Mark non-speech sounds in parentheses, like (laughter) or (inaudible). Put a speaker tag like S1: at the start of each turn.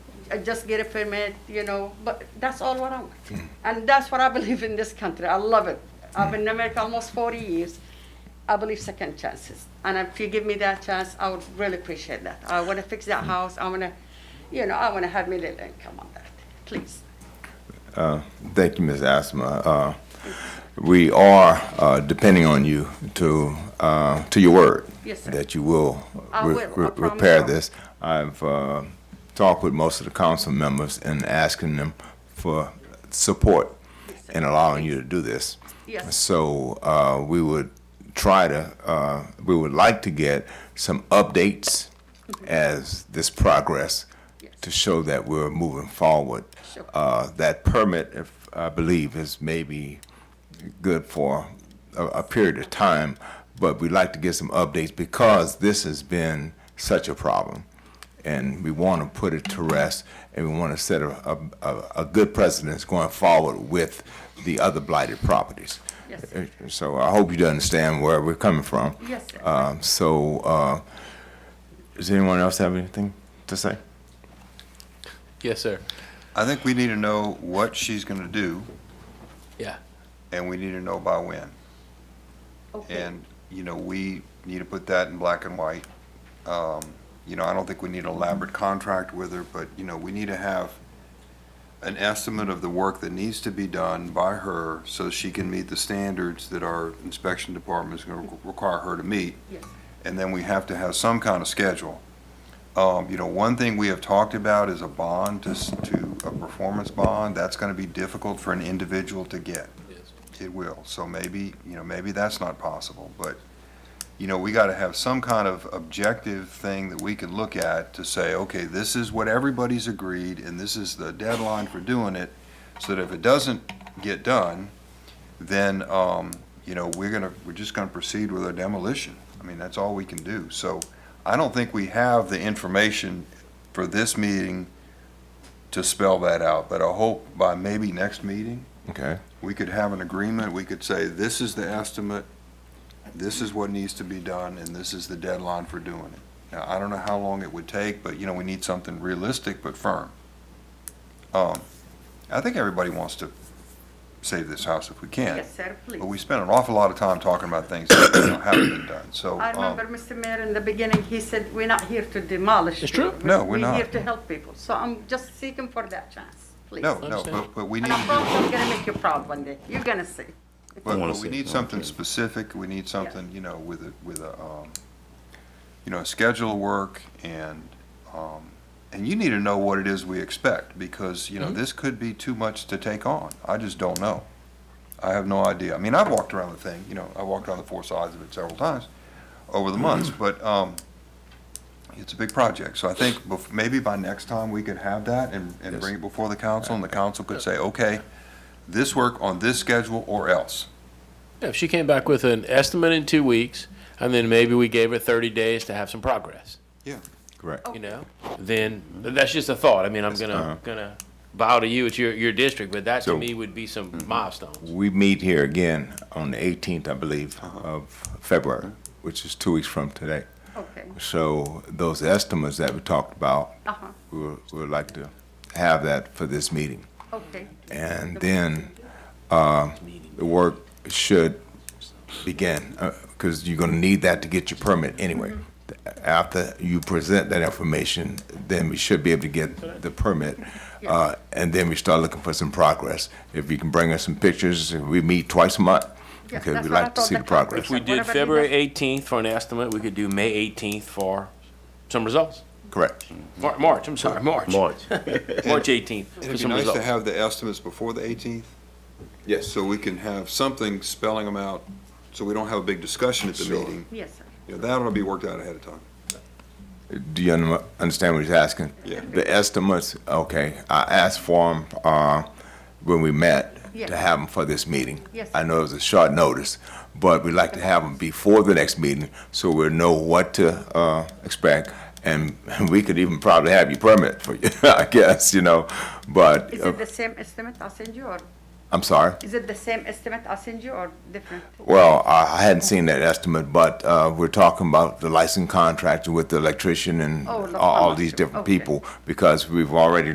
S1: uh, just get a permit, you know, but that's all what I want.
S2: Hmm.
S1: And that's what I believe in this country. I love it. I've been in America almost 40 years. I believe second chances. And if you give me that chance, I would really appreciate that. I want to fix
S2: Hmm.
S1: that house. I want to, you know, I want to have my little income on that, please.
S3: Thank you, Ms. Asma. Uh, We are uh, depending on you to, uh, to your word.
S1: Yes, sir.
S3: That you will
S1: I
S3: re-
S1: will. I
S3: re-
S1: promise
S3: repair
S1: I will.
S3: this. I've uh, talked with most of the council members and asking them for support
S1: Yes, sir.
S3: in allowing you to do this.
S1: Yes.
S3: So uh, we would try to, uh, we would like to get some updates as this progress
S1: Yes.
S3: to show that we're moving forward.
S1: Sure.
S3: Uh, That permit, if, I believe, is maybe good for a, a period of time, but we'd like to get some updates because this has been such a problem. And we want to put it to rest and we want to set a, a, a- a good precedence going forward with the other blighted properties.
S1: Yes.
S3: Uh, So I hope you understand where we're coming from.
S1: Yes, sir.
S3: Um, so, uh, does anyone else have anything to say?
S4: Yes, sir.
S2: I think we need to know what she's gonna do,
S4: Yeah.
S2: and we need to know by when.
S1: Okay.
S2: And, you know, we need to put that in black and white. Um, You know, I don't think we need an elaborate contract with her, but, you know, we need to have an estimate of the work that needs to be done by her so she can meet the standards that our inspection department is gonna require her to meet.
S1: Yes.
S2: And then we have to have some kind of schedule. Um, You know, one thing we have talked about is a bond, to s- to, a performance bond. That's gonna be difficult for an individual to get. It will, so maybe, you know, maybe that's not possible, but, you know, we gotta have some kind of objective thing that we can look at to say, okay, this is what everybody's agreed, and this is the deadline for doing it, so that if it doesn't get done, then, um, you know, we're gonna, we're just gonna proceed with a demolition. I mean, that's all we can do, so I don't think we have the information for this meeting to spell that out, but I hope by maybe next meeting,
S3: Okay.
S2: we could have an agreement, we could say, this is the estimate, this is what needs to be done, and this is the deadline for doing it. Now, I don't know how long it would take, but, you know, we need something realistic but firm. Um, I think everybody wants to save this house if we can,
S1: Yes, sir, please.
S2: but we spent an awful lot of time talking about things that you know, haven't been done, so.
S1: I
S2: um,
S1: remember Mr. Mayor in the beginning, he said, we're not here to demolish.
S4: It's true.
S1: people.
S2: No, we're
S1: We're
S2: not.
S1: here to help people. So I'm just seeking for that chance, please.
S2: No, no,
S4: Understand.
S2: but, but we need
S1: And I
S2: to do
S1: promise I'm gonna make you proud one day. You're gonna see.
S2: But,
S5: I wanna
S2: but we
S5: see it,
S2: need
S5: no,
S2: something
S5: okay.
S2: specific, we need something, you know, with a, with a, um, you know, a schedule of work and, um, and you need to know what it is we expect, because, you
S5: Mm-hmm.
S2: know, this could be too much to take on. I just don't know. I have no idea. I mean, I've walked around the thing, you know, I walked around the four sides of it several times over the months,
S5: Mm-hmm.
S2: but, um, it's a big project, so I think bef- maybe by next time we could have that and, and bring it before the council, and the council could say, okay, this work on this schedule or else.
S4: If she came back with an estimate in two weeks, and then maybe we gave her 30 days to have some progress,
S3: Correct.
S1: Oh.
S4: you know, then that's just a thought. I mean, I'm gonna
S3: Uh-huh.
S4: gonna bow to you. It's your your district, but that
S3: So-
S4: to me would be some milestones.
S3: We meet here again on the 18th, I believe, of February, which is two weeks from today.
S1: Okay,
S3: So those estimates that we talked about,
S1: uh-huh,
S3: we would we would like to have that for this meeting.
S1: okay.
S3: And then uh, the work should begin, because you're going to need that to get your permit anyway.
S1: Mm-hmm.
S3: After you present that information, then we should be able to get the permit. uh, And then we start looking for some progress. If you can bring us some pictures, we meet twice a month.
S1: Yeah,
S3: Okay,
S1: that's
S3: we'd
S1: what I
S3: like to
S1: thought
S3: see the
S1: the council-
S3: progress.
S4: If we
S1: So
S4: did
S1: whatever he
S4: February 18th for an estimate, we could do May 18th for some results.
S3: Correct.
S4: Mar- March, I'm sorry, March.
S5: March.
S4: March 18th for
S2: It'd be
S4: some
S2: nice to
S4: results.
S2: have the estimates before the 18th. Yes. So we can have something spelling them out, so we don't have a big discussion at the meeting.
S1: Yes, sir.
S2: You know, that'll be worked out ahead of time.
S3: Do you un- understand what he's asking?
S2: Yeah.
S3: The estimates, okay, I asked for them, uh, when we met,
S1: Yes.
S3: to have them for this meeting.
S1: Yes.
S3: I know it was a short notice, but we'd like to have them before the next meeting, so we'll know what to, uh, expect. And (laughs) we could even probably have your permit for you, (laughs) I guess, you know, but,
S1: Is
S3: uh,
S1: it the same estimate I send you, or
S3: I'm sorry.
S1: is it the same estimate I send you, or different?
S3: Well, I I hadn't seen that estimate, but uh, we're talking about the license contractor with the electrician and
S1: Oh,
S3: all all these
S1: electrician,
S3: different
S1: okay.
S3: people, because we've already